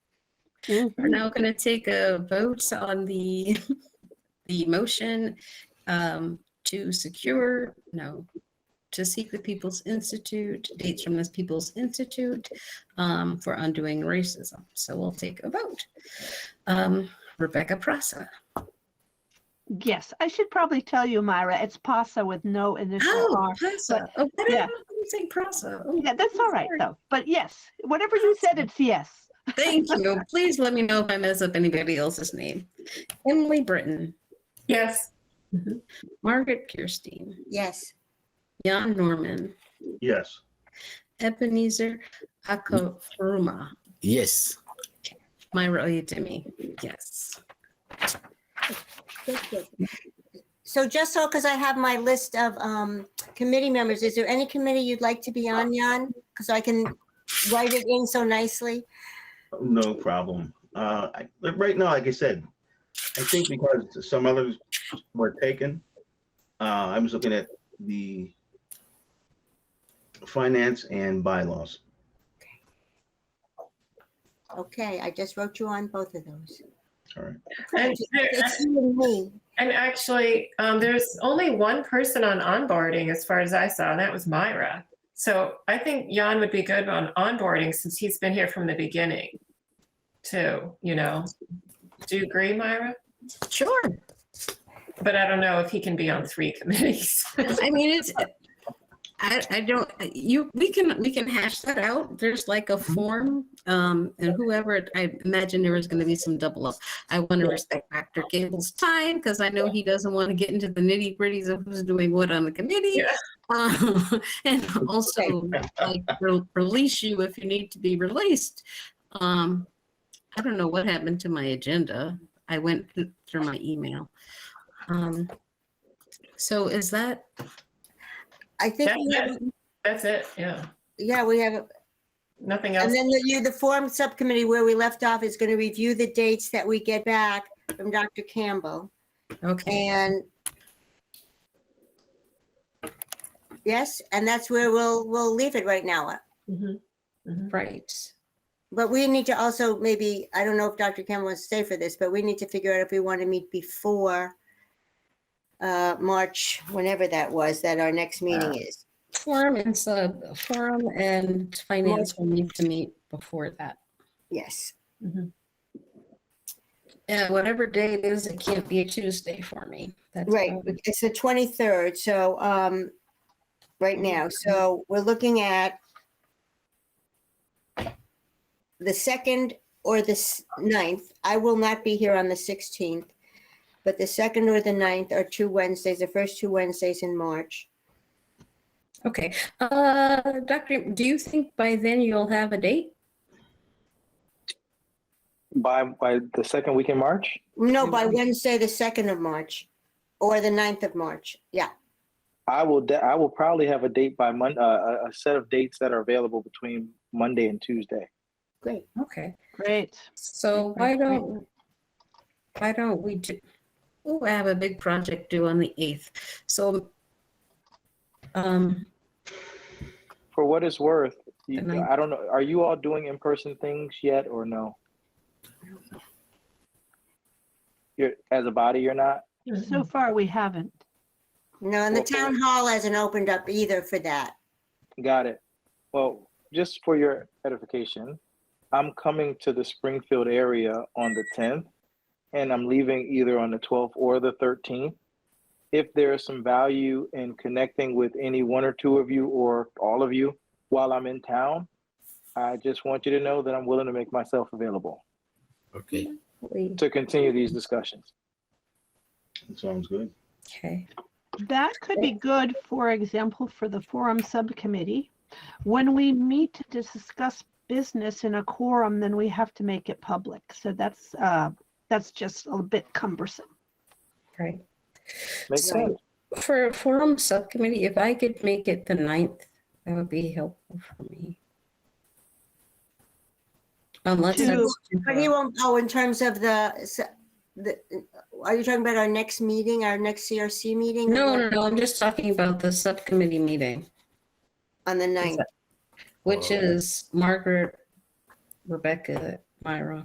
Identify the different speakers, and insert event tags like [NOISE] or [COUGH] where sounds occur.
Speaker 1: Mhm.
Speaker 2: We're now going to take a vote on the, [LAUGHS] the motion um, to secure, no, to seek the People's Institute, dates from this People's Institute um, for undoing racism. So we'll take a vote. Um, Rebecca Prasa.
Speaker 1: Yes, I should probably tell you, Myra, it's PASA with no initial
Speaker 2: Oh,
Speaker 1: R.
Speaker 2: Prasa. Oh, why did I
Speaker 1: yeah.
Speaker 2: you say Prasa? Oh,
Speaker 1: Yeah, that's all right
Speaker 2: sorry.
Speaker 1: though. But yes, whatever you said, it's yes.
Speaker 2: Thank you. Please let me know if I mess up anybody else's name. Emily Britton,
Speaker 3: Yes.
Speaker 2: Margaret Kirstein,
Speaker 4: Yes.
Speaker 2: Jan Norman,
Speaker 5: Yes.
Speaker 2: Ebenezer Akofuruma,
Speaker 6: Yes.
Speaker 2: Myra Oyedemi. Yes.
Speaker 4: Thank you. So just so, because I have my list of um, committee members, is there any committee you'd like to be on, Jan? Because I can write it in so nicely.
Speaker 5: No problem. Uh, I, but right now, like I said, I think because some others were taken, uh, I was looking at the finance and bylaws.
Speaker 4: Okay, I just wrote you on both of those.
Speaker 5: All right.
Speaker 3: And,
Speaker 4: It's you and me.
Speaker 3: and actually, um, there's only one person on onboarding as far as I saw, and that was Myra. So I think Jan would be good on onboarding since he's been here from the beginning too, you know. Do you agree, Myra?
Speaker 2: Sure.
Speaker 3: But I don't know if he can be on three [LAUGHS] committees.
Speaker 2: I mean, it's, I, I don't, you, we can, we can hash that out. There's like a form, um, and whoever, I imagine there is gonna be some double up. I want to respect Dr. Gable's time, because I know he doesn't want to get into the nitty gritties of who's doing what on the committee.
Speaker 3: Yeah.
Speaker 2: Um, [LAUGHS] and also, like, re- release you if you need to be released. Um, I don't know what happened to my agenda. I went th- through my email. Um, so is that,
Speaker 4: I think, we
Speaker 3: That's
Speaker 4: have-
Speaker 3: That's it, yeah.
Speaker 4: yeah, we have,
Speaker 3: Nothing else.
Speaker 4: and then the- you, the form subcommittee where we left off is going to review the dates that we get back from Dr. Campbell.
Speaker 2: okay,
Speaker 4: And yes, and that's where we'll, we'll leave it right now.
Speaker 3: Mhm, mhm.
Speaker 2: right.
Speaker 4: But we need to also maybe, I don't know if Dr. Campbell wants to stay for this, but we need to figure out if we want to meet before uh, March, whenever that was, that our next meeting is.
Speaker 2: Forum and sub, forum and finance will need to meet before that.
Speaker 4: Yes.
Speaker 2: Yeah, whatever day it is, it can't be a Tuesday for me. That's
Speaker 4: Right,
Speaker 2: probably-
Speaker 4: it's the 23rd, so, um, right now, so we're looking at the second or the s- ninth. I will not be here on the 16th, but the second or the ninth are two Wednesdays, the first two Wednesdays in March.
Speaker 2: Okay, uh, Dr., do you think by then you'll have a date?
Speaker 7: By, by the second week in March?
Speaker 4: No,
Speaker 2: Mm.
Speaker 4: by Wednesday, the second of March, or the 9th of March, yeah.
Speaker 7: I will, de- I will probably have a date by Mon, uh, a, a set of dates that are available between Monday and Tuesday.
Speaker 4: Great.
Speaker 2: Okay,
Speaker 1: Great.
Speaker 2: so why don't, why don't we do, oh, I have a big project due on the 8th, so, um,
Speaker 7: For what it's worth, you-
Speaker 2: The ninth.
Speaker 7: I don't know, are you all doing in-person things yet or no? You're, as a body, you're not?
Speaker 2: Mm-hmm.
Speaker 1: So far, we haven't.
Speaker 4: No, and the
Speaker 7: Well, well-
Speaker 4: town hall hasn't opened up either for that.
Speaker 7: Got it. Well, just for your edification, I'm coming to the Springfield area on the 10th, and I'm leaving either on the 12th or the 13th. If there is some value in connecting with any one or two of you or all of you while I'm in town, I just want you to know that I'm willing to make myself available
Speaker 6: Okay.
Speaker 2: we-
Speaker 7: to continue these discussions.
Speaker 5: That sounds good.
Speaker 2: okay,
Speaker 1: That could be good, for example, for the forum subcommittee. When we meet to discuss business in a quorum, then we have to make it public. So that's, uh, that's just a bit cumbersome.
Speaker 2: right.
Speaker 7: Makes
Speaker 2: So-
Speaker 7: sense.
Speaker 2: For a forum subcommittee, if I could make it the ninth, that would be helpful for me. Unless.
Speaker 1: To-
Speaker 2: that's too
Speaker 4: But he
Speaker 2: hard.
Speaker 4: won't, oh, in terms of the, s- the, are you talking about our next meeting, our next CRC meeting?
Speaker 2: No, no, no, I'm just talking about the subcommittee meeting,
Speaker 4: On the ninth.
Speaker 2: which
Speaker 6: Oh.
Speaker 2: is Margaret, Rebecca, Myra,